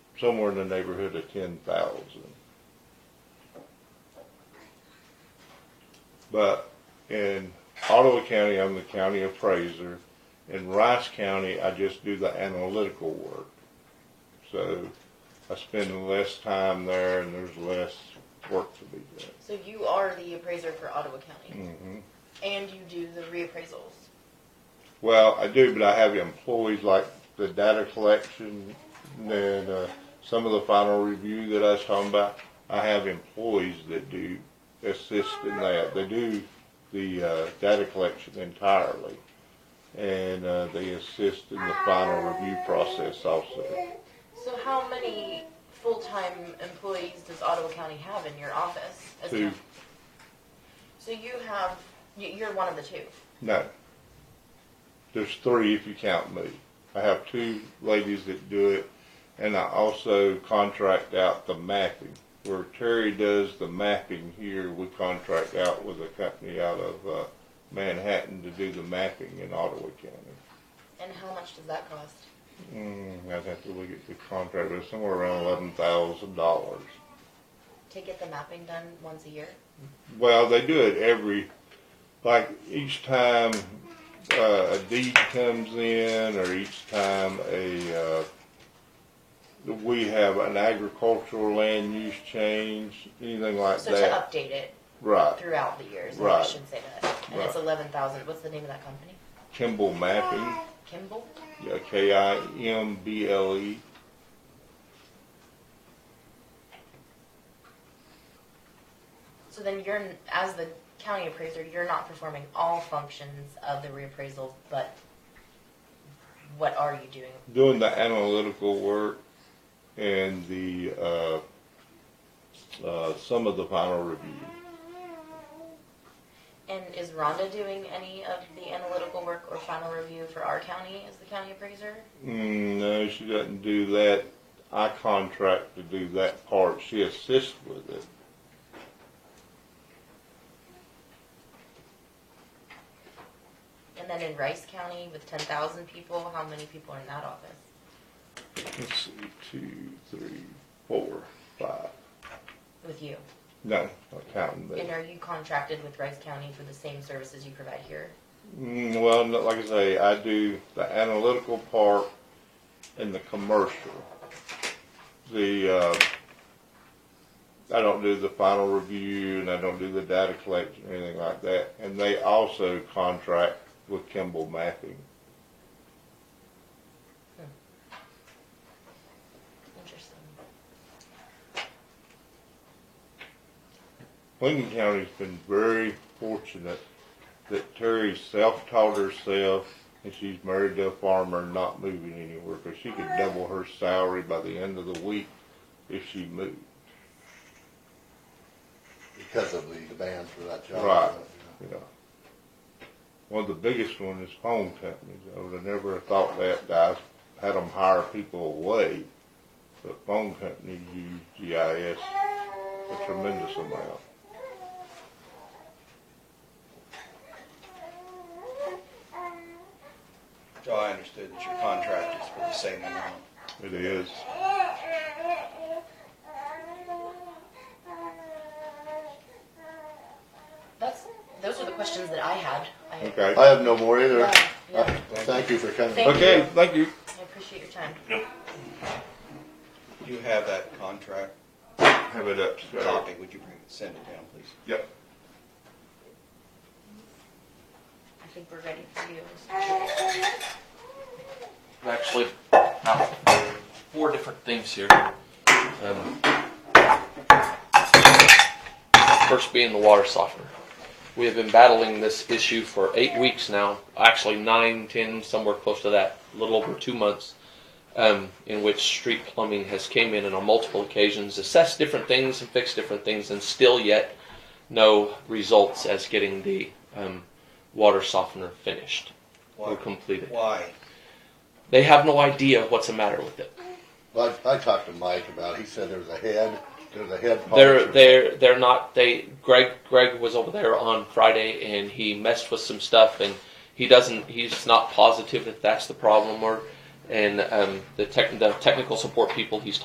somewhere in the neighborhood of ten thousand. But in Ottawa County, I'm the county appraiser. In Rice County, I just do the analytical work. So I spend less time there and there's less work to be done. So you are the appraiser for Ottawa County, hmm and you do the reappraisals. Well, I do, but I have employees like the data collection, and uh, some of the final review that I was talking about. I have employees that do assist in that. They do the uh, data collection entirely, and uh, they assist in the final review process also. So how many full-time employees does Ottawa County have in your office? as Two. coun- So you have, you- you're one of the two. No, there's three if you count me. I have two ladies that do it, and I also contract out the mapping. Where Terry does the mapping here, we contract out with a company out of uh, Manhattan to do the mapping in Ottawa County. And how much does that cost? Mm, I'd have to look at the contract, but it's somewhere around eleven thousand dollars. To get the mapping done once a year? Well, they do it every, like each time uh, a deed comes in, or each time a uh, we have an agricultural land use change, anything like So to Uh, that. update it Right, throughout the years, maybe I Right. should say that. And it's Right. eleven thousand, what's the name of that company? Kimball Mapping, Kimball? yeah, K I M B L E. So then you're, as the county appraiser, you're not performing all functions of the reappraisal, but what are you doing? doing the analytical work and the uh, uh, some of the final review. And is Rhonda doing any of the analytical work or final review for our county as the county appraiser? Mm, no, she doesn't do that. I contract to do that part. She assists with it. And then in Rice County with ten thousand people, how many people are in that office? Let's see, two, three, four, five. With you? No, not counting that. And are you contracted with Rice County for the same services you provide here? Mm, well, no, like I say, I do the analytical part and the commercial. The uh, I don't do the final review, and I don't do the data collection, or anything like that. And they also contract with Kimball Mapping. Interesting. Lincoln County's been very fortunate that Terry self-taught herself and she's married to a farmer, not moving anywhere, because she could double her salary by the end of the week if she moved. because of the demand for that job. Right. You know, one of the biggest one is phone companies. I would have never thought that. I had them hire people away, but phone companies use GIS a tremendous amount. So I understood that your contract is for the same amount. It is. That's, those are the questions that I had. I- Okay. I have no more either. Yeah, yeah. Thank you for coming. Thank Okay, thank you. I appreciate your time. Do you have that contract Have it up, Scott. copy? Would you bring, send it down, please? Yep. I think we're ready for you. actually uh, four different things here. Um, first being the water softener. We have been battling this issue for eight weeks now, actually nine, ten, somewhere close to that, a little over two months, um, in which street plumbing has came in and on multiple occasions, assessed different things and fixed different things, and still yet no results as getting the um, water softener finished Why? or completed. Why? They have no idea what's the matter with it. Well, I, I talked to Mike about. It. He said there was a head. There's a head. part They're or- they're they're not. They Greg Greg was over there on Friday and he messed with some stuff and he doesn't. He's not positive if that's the problem or. And um, the, tech, the technical support people he's